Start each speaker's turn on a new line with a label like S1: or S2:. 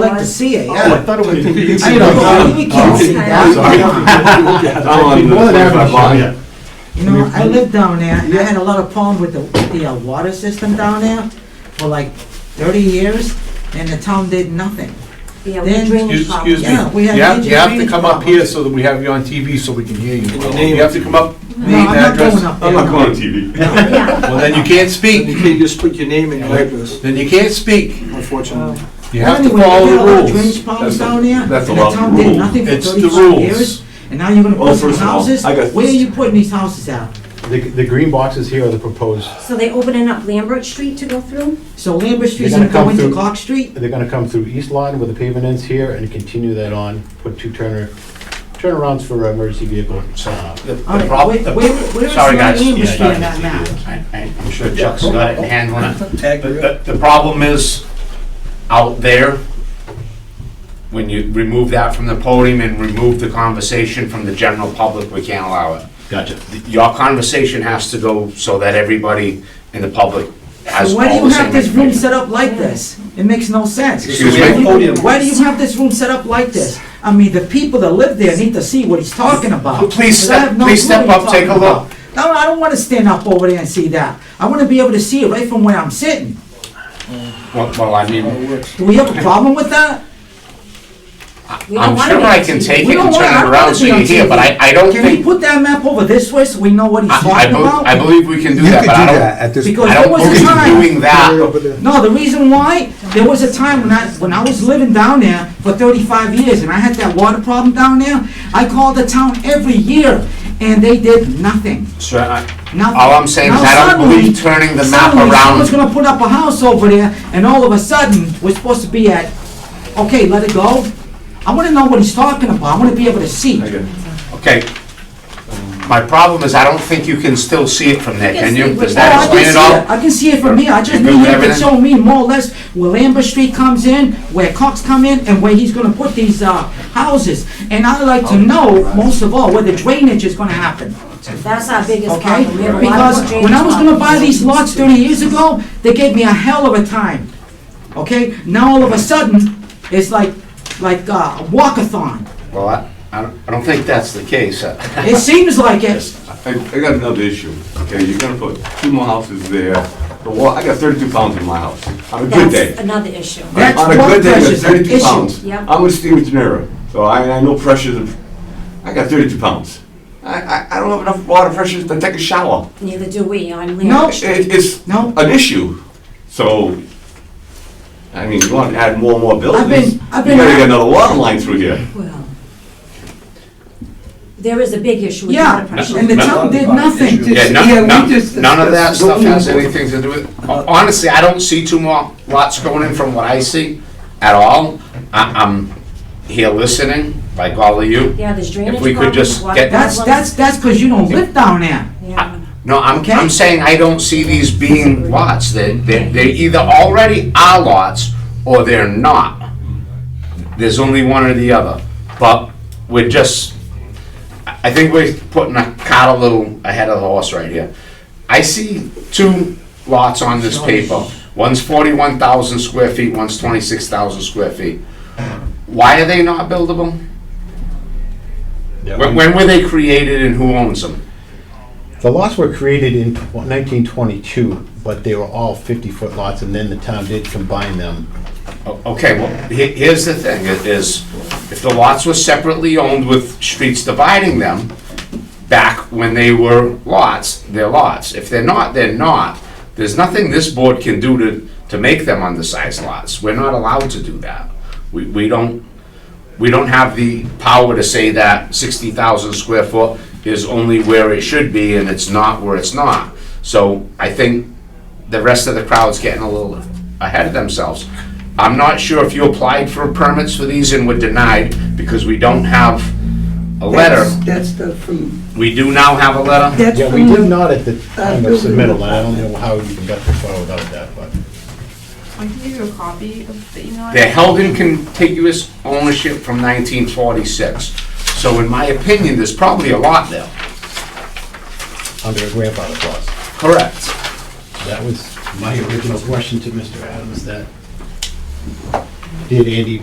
S1: like to see it,
S2: Oh, I
S1: yeah.
S2: thought it was.
S1: I know, you can't see that.
S3: I'm on the
S2: More than
S3: 25
S2: average,
S3: block,
S2: yeah.
S3: yeah.
S1: You know, I lived down there, and I had a lot of problems with the, with the uh, water system down there for like thirty years, and the town did nothing.
S4: Yeah,
S1: Then-
S4: we drainage
S5: Excuse excuse
S4: problems.
S5: me.
S1: Yeah, we have
S5: You have-
S1: major
S5: You have to
S1: drainage
S5: come up here
S1: problems.
S5: so that we have you on TV so we can hear you.
S3: your name.
S5: You have to come up,
S1: No,
S5: name,
S1: I'm not going
S5: address.
S1: up there.
S3: I'm not
S1: no.
S3: going on TV.
S4: Yeah,
S5: Well, then you can't
S3: And You
S5: speak.
S3: can't just put your name and your address,
S5: Then you can't speak.
S3: unfortunately.
S5: You have to
S1: Anyway, we
S5: follow
S1: had a lot of
S5: the
S1: Drainage
S5: rules.
S1: problems
S2: That's
S1: down
S2: a-
S1: there, and
S2: that's a
S1: the
S2: lot of
S1: town did
S2: rules.
S1: nothing for
S5: It's the
S1: thirty-five years,
S5: rules.
S1: and now you're gonna
S2: Well,
S1: put some
S2: first of all,
S1: houses?
S2: I got-
S1: Where are you putting these houses at?
S6: The, the green boxes here are the proposed,
S4: so they opening up Lambert Street to go through?
S1: So Lambert Street's
S6: They're
S1: gonna
S6: gonna
S1: go
S6: come
S1: into
S6: through-
S1: Clark Street?
S6: they're gonna come through East Line where the pavement ends here and continue that on, put two turner, turnarounds for uh, emergency vehicle. uh,
S1: All right,
S6: prob-
S1: where,
S6: the-
S1: where where is
S6: Sorry,
S1: my
S6: guys.
S1: Lambert
S6: Yeah,
S1: Street on
S6: yeah,
S1: that map?
S6: I- I- I'm sure Chuck's got it handling it. The- The the problem is,
S7: out there, when you remove that from the podium and remove the conversation from the general public, we can't allow it.
S6: gotcha.
S7: Your conversation has to go so that everybody in the public has
S1: So
S7: all
S1: why do you
S7: the same
S1: have this room
S7: information.
S1: set up like this? It makes no sense.
S7: Excuse
S3: We have a
S7: me?
S3: podium.
S1: Why do you have this room set up like this? I mean, the people that live there need to see what he's talking about.
S7: Please
S1: 'cause I
S7: step-
S1: have no
S7: please
S1: clue what
S7: step
S1: he's
S7: up, take a
S1: talking
S7: look.
S1: about. No, I don't wanna stand up over there and see that. I wanna be able to see it right from where I'm sitting.
S7: Well, well, I mean,
S1: Do we have a problem with that?
S4: We don't
S7: I'm
S4: wanna
S7: sure
S4: be
S7: I
S4: on
S7: can
S4: TV.
S7: take
S1: We
S7: it
S1: don't
S7: and
S1: want- I
S7: turn
S1: don't
S7: it
S1: wanna
S7: around so
S1: be on
S7: you hear, but I, I don't
S1: Can we
S7: think,
S1: put that map over this way so we know what he's
S7: I, I
S1: talking
S7: bel- I
S1: about?
S7: believe we can do
S8: You
S7: that,
S8: could
S7: but I
S8: do that
S7: don't,
S8: at this
S1: Because
S7: I
S1: there
S7: don't
S1: was a
S7: believe
S1: time.
S7: doing that.
S1: No, the reason why, there was a time when I, when I was living down there for thirty-five years and I had that water problem down there, I called the town every year and they did nothing.
S7: So I-
S1: Nothing.
S7: All I'm saying is
S1: Now
S7: I don't
S1: suddenly-
S7: believe turning the map
S1: suddenly
S7: around.
S1: Someone's gonna put up a house over there, and all of a sudden, we're supposed to be at, okay, let it go. I wanna know what he's talking about, I wanna be able to see.
S7: Okay. My problem is I don't think you can still see it from there,
S4: can
S7: can
S4: see
S7: you?
S4: what-
S7: Does
S1: Oh,
S7: that
S1: I can
S7: explain it
S1: see
S7: all?
S1: it. I can see it from here, I just
S7: You
S1: need
S7: good with
S1: him to
S7: everything?
S1: show me more or less where Lambert Street comes in, where Cox come in, and where he's gonna put these, uh, houses. And I'd like to know, most of all, where the drainage is gonna happen.
S4: That's our biggest
S1: okay?
S4: problem. We have a lot
S1: Because
S4: of drainage
S1: when I was gonna buy
S4: problems.
S1: these lots thirty years ago, they gave me a hell of a time, okay? Now all of a sudden, it's like, like uh, a walkathon.
S7: Well, I, I don't- I don't think that's the case. uh,
S1: It seems like it.
S2: I, I got another issue, okay, you're gonna put two more houses there, the wall, I got thirty-two pounds in my house, on a good day.
S4: That's another issue.
S1: That's
S2: On a
S1: one
S2: good day, I got
S1: precious
S2: thirty-two
S1: issue.
S2: pounds.
S4: Yep.
S2: I'm a Steven Tenera, so I, I know pressures of, I got thirty-two pounds. I, I, I don't have enough water pressure to take a shower.
S4: Neither do we on land.
S1: No.
S2: It, it's
S1: No.
S2: an issue, so, I mean, you wanna add more and more
S1: I've been-
S2: buildings, you
S1: I've
S2: gotta
S1: been-
S2: get another water line through here.
S4: Well, There is a big issue with
S1: Yeah,
S4: water pressure.
S1: and the town did nothing.
S7: Yeah,
S3: Yeah,
S7: none,
S3: we
S7: none,
S3: just-
S7: none of that
S3: that's
S7: stuff
S3: what we-
S7: has anything to do with, honestly, I don't see two more lots going in from what I see at all. I, I'm here listening, like all of you.
S4: Yeah, there's drainage
S7: we could
S4: problems,
S7: just
S4: water
S7: get-
S1: That's, that's,
S4: problems.
S1: that's because you don't live down there.
S4: Yeah.
S7: No, I'm,
S1: Okay.
S7: I'm saying I don't see these being lots. They, they, they either already are lots or they're not. There's only one or the other. But we're just, I I think we're putting a cart a little ahead of the horse right here. I see two lots on this paper. One's forty-one thousand square feet, one's twenty-six thousand square feet. Why are they not buildable? When, when were they created and who owns them?
S6: The lots were created in tw- 1922, but they were all 50-foot lots, and then the town did combine them.
S7: O- Okay, well, he- here's the thing, i- is if the lots were separately owned with streets dividing them, back when they were lots, they're lots. If they're not, they're not. There's nothing this board can do to, to make them undersized lots. We're not allowed to do that. We, we don't, we don't have the power to say that sixty thousand square foot is only where it should be and it's not where it's not. So I think the rest of the crowd's getting a little ahead of themselves. I'm not sure if you applied for permits for these and were denied because we don't have a letter.
S9: That's the from,
S7: We do now have a letter.
S9: that's
S6: Yeah, we did
S9: from,
S6: not at the time of submittal, and I don't know how you got this far without that, but.
S10: I can give you a copy of the email.
S7: They're held in contiguous ownership from 1946. So in my opinion, there's probably a lot there.
S6: under a grandfather clause.
S7: Correct.
S6: That was my original question to Mr. Adams, that did Andy